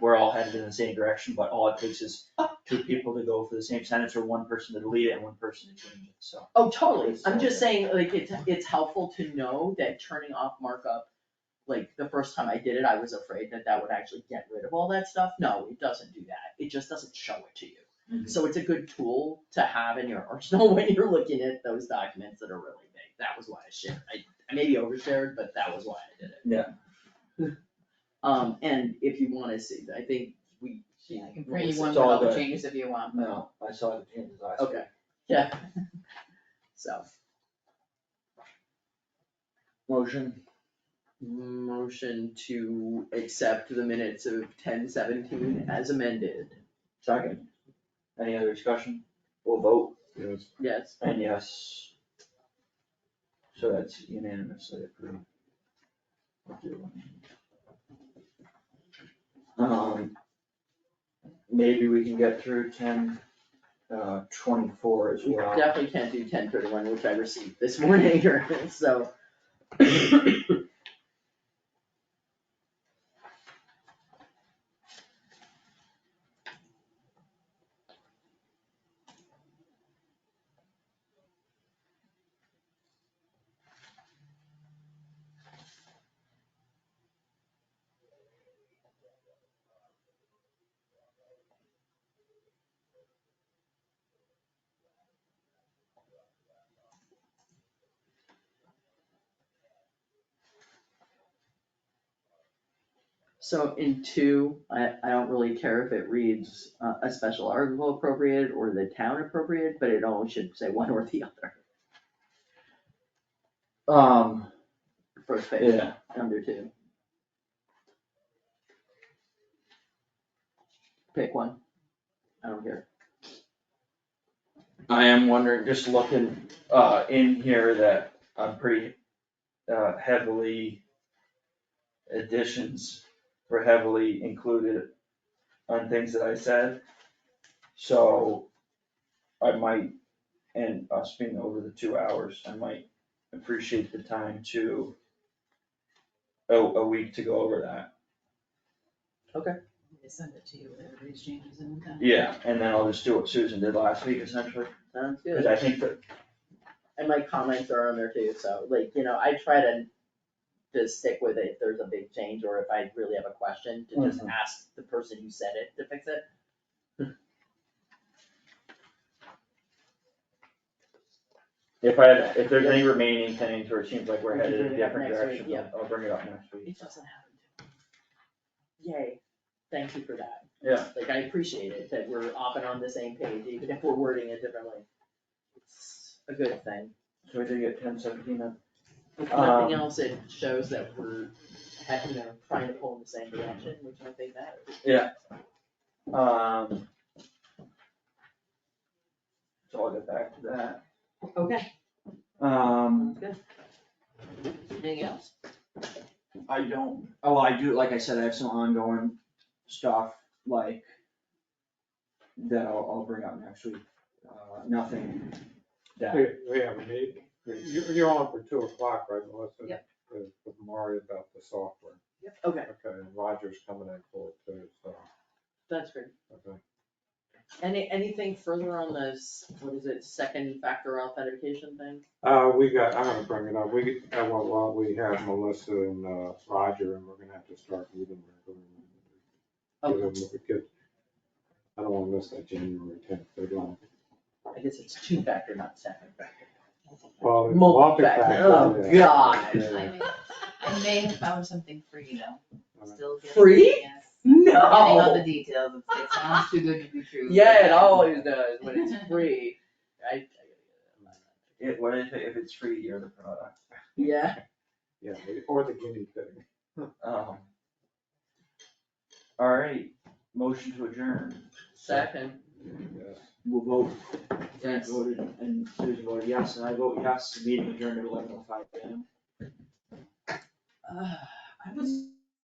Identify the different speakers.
Speaker 1: were all headed in the same direction, but all it takes is two people to go for the same sentence or one person to delete it and one person to change it, so.
Speaker 2: Oh, totally, I'm just saying, like, it's, it's helpful to know that turning off markup, like, the first time I did it, I was afraid that that would actually get rid of all that stuff, no, it doesn't do that, it just doesn't show it to you.
Speaker 3: Mm-hmm.
Speaker 1: Mhm.
Speaker 2: So it's a good tool to have in your arsenal when you're looking at those documents that are really big, that was why I shared, I, I maybe overshared, but that was why I did it.
Speaker 1: Yeah.
Speaker 2: Um, and if you wanna see, I think we.
Speaker 3: Yeah, I can print you
Speaker 1: It's
Speaker 3: one with
Speaker 1: all
Speaker 3: all the
Speaker 1: good.
Speaker 3: changes if you want, but-
Speaker 1: No, I saw the changes last week.
Speaker 2: Okay, yeah. So,
Speaker 1: Motion,
Speaker 2: motion to accept the minutes of ten seventeen as amended,
Speaker 1: second. Any other discussion? We'll vote,
Speaker 4: Yes,
Speaker 2: yes.
Speaker 1: and yes. So that's unanimously approved. I'll do one. Um, maybe we can get through ten, uh, twenty-four as
Speaker 2: We
Speaker 1: well.
Speaker 2: definitely can't do ten thirty one, which I received this morning, so. So in two, I, I don't really care if it reads uh, a special article appropriate or the town appropriate, but it always should say one or the other,
Speaker 1: Um,
Speaker 2: first page,
Speaker 1: yeah,
Speaker 2: under two. Pick one, I don't care.
Speaker 1: I am wondering, just looking, uh, in here that I'm pretty, uh, heavily additions were heavily included on things that I said. So I might, and us being over the two hours, I might appreciate the time to a, a week to go over that.
Speaker 3: They send it to you with everybody's changes in them.
Speaker 1: Yeah, and then I'll just do what Susan did last week essentially,
Speaker 2: Sounds good.
Speaker 1: cause I think that
Speaker 2: And my comments are on there too, so like, you know, I try to just stick with it if there's a big change or if I really have a question, to
Speaker 1: Mm-hmm.
Speaker 2: just ask the person who said it to fix it.
Speaker 1: If I, had- if there's any remaining things where it seems like we're
Speaker 2: We can
Speaker 1: headed in a
Speaker 2: bring
Speaker 1: different
Speaker 2: it up next week,
Speaker 1: direction,
Speaker 2: yeah.
Speaker 1: I'll I'll bring it up next week.
Speaker 2: It doesn't happen. Yay, thank you for that.
Speaker 1: Yeah.
Speaker 2: Like, I appreciate it that we're often on the same page, even if we're wording it differently. It's a good thing.
Speaker 1: So we did get ten seventeen then.
Speaker 2: If nothing
Speaker 1: Um,
Speaker 2: else, it shows that we're, you know, trying to pull in the same direction, which I think matters.
Speaker 1: Um. So I'll get back to
Speaker 2: Okay.
Speaker 1: that. Um,
Speaker 2: Good. Anything else?
Speaker 1: I don't, oh, I do, like I said, I have some ongoing stuff like that I'll, I'll bring up next week. Uh, nothing that,
Speaker 4: we, we have a meeting, you, you're on for two o'clock, right, Melissa?
Speaker 3: Yep.
Speaker 4: With with Mari about the software,
Speaker 2: Okay,
Speaker 4: okay, and Roger's coming in for it too, so,
Speaker 2: that's great.
Speaker 4: okay.
Speaker 2: Any, anything further on this, what is it, second factor authentication thing?
Speaker 4: Uh, we got, I'm gonna bring it up, we, uh, well, well, we have Melissa and, uh, Roger, and we're gonna have to start meeting. regularly.
Speaker 2: Oh.
Speaker 4: Give them- get- I don't wanna miss that January tenth deadline.
Speaker 2: I guess it's two factor, not second factor.
Speaker 4: Well, it's
Speaker 2: Multi-factor, oh,
Speaker 4: multi-factor, yeah,
Speaker 2: God.
Speaker 4: yeah.
Speaker 3: I may- I may have found something free though, still getting.
Speaker 2: Free?
Speaker 3: Yes. Getting all the
Speaker 2: No!
Speaker 3: details, It's- it sounds too good to be true.
Speaker 2: Yeah, it always does, when it's free. I,
Speaker 1: it, what is it, if it's free, you're the product.
Speaker 2: yeah,
Speaker 4: Yeah, or the guinea pig.
Speaker 1: Um. All right, motion to adjourn.
Speaker 2: second.
Speaker 4: Yes.
Speaker 1: we will vote, Frank
Speaker 2: Yes.
Speaker 1: voted and Susan voted yes, and I vote yes, meeting adjourned at eleven oh five P M.
Speaker 2: Ah, I was